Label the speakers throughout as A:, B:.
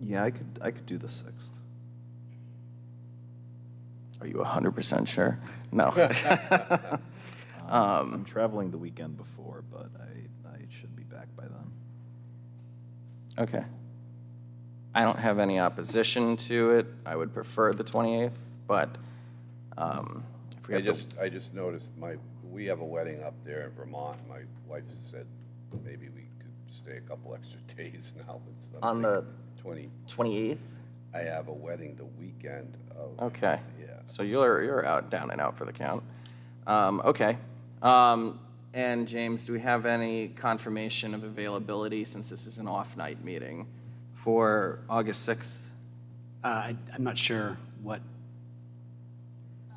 A: Yeah, I could, I could do the 6th.
B: Are you 100% sure? No.
A: I'm traveling the weekend before, but I, I should be back by then.
B: Okay. I don't have any opposition to it. I would prefer the 28th, but um, I
C: I
B: forget the-
C: just, I just noticed my, we have a wedding up there in Vermont. My wife said maybe we could stay a couple extra days now. It's I'm
B: On the-
C: thinking Twenty,
B: 28th?
C: I have a wedding the weekend of.
B: Okay.
C: Yeah.
B: So you're, you're out, down and out for the count. Um, Okay. Um, And James, do we have any confirmation of availability, since this is an off-night meeting, for August 6th?
D: Uh, I- I'm not sure what,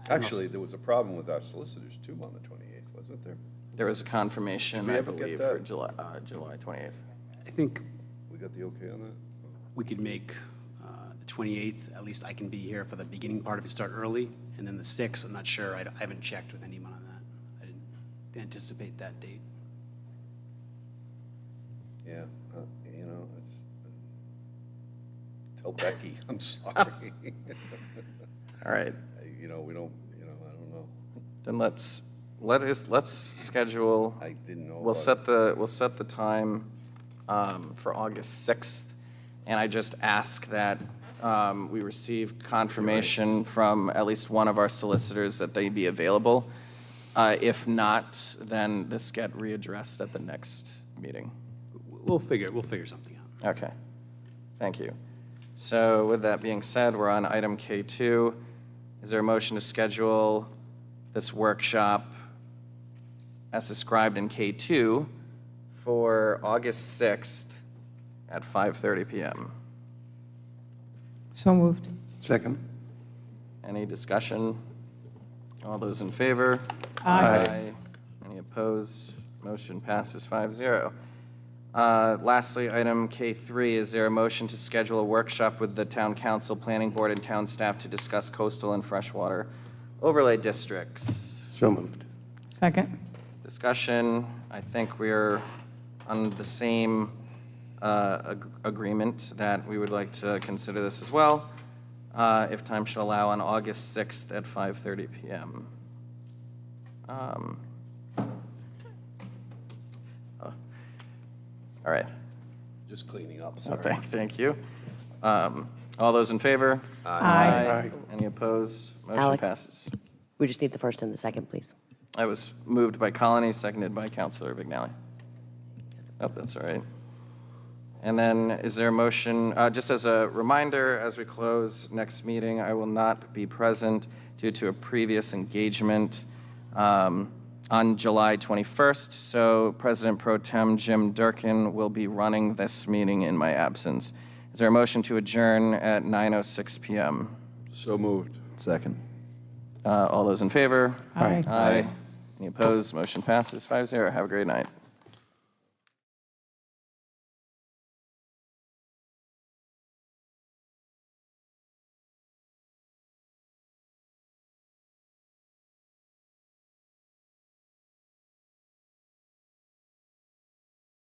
C: Actually, there was a problem with our solicitors too on the twenty-eighth, wasn't there?
B: There was a confirmation,
C: we
B: I
C: ever get
B: believe, for
C: that?
B: July, uh, July 28th.
D: I think
C: We got the okay on that?
D: we could make uh, the 28th, at least I can be here for the beginning part if it start early, and then the 6th, I'm not sure, I d- I haven't checked with anyone on that. I didn't anticipate that date.
C: Yeah, uh, you know, it's, tell Becky, I'm sorry.
B: All right.
C: You know, we don't, you know, I don't know.
B: Then let's, let us, let's schedule,
C: I didn't know.
B: we'll
C: about-
B: set the, we'll set the time um, for August 6th, and I just ask that um, we receive confirmation from at least one of our solicitors that they be available. Uh, If not, then this get readdressed at the next meeting.
D: W- We'll figure, we'll figure something out.
B: Okay, thank you. So with that being said, we're on item K2. Is there a motion to schedule this workshop as described in K2 for August 6th at 5:30 PM?
E: So moved.
F: Second.
B: Any discussion? All those in favor? Aye. Any opposed? Motion passes 5-0. Uh, Lastly, item K3, is there a motion to schedule a workshop with the town council, planning board, and town staff to discuss coastal and freshwater overlay districts?
F: So moved.
E: Second.
B: discussion. I think we're on the same uh, ag- agreement that we would like to consider this as well, uh, if time should allow, on August 6th at 5:30 PM. Um, oh, All right.
C: Just cleaning up,
B: Oh,
C: sorry.
B: Thank thank you. Um, All those in favor?
F: Aye.
B: Any opposed? Motion
G: Alex?
B: passes.
G: We just need the first and the second, please.
B: I was moved by Colony, seconded by Counselor Vignali. Oh, that's all right. And then, is there a motion, uh, just as a reminder, as we close next meeting, I will not be present due to a previous engagement um, on July 21st, so President Pro Tem Jim Durkin will be running this meeting in my absence. Is there a motion to adjourn at 9:06 PM?
C: So moved.
A: Second.
B: Uh, All those in favor?
E: Aye.
B: Aye. Any opposed? Motion passes 5-0. Have a great night.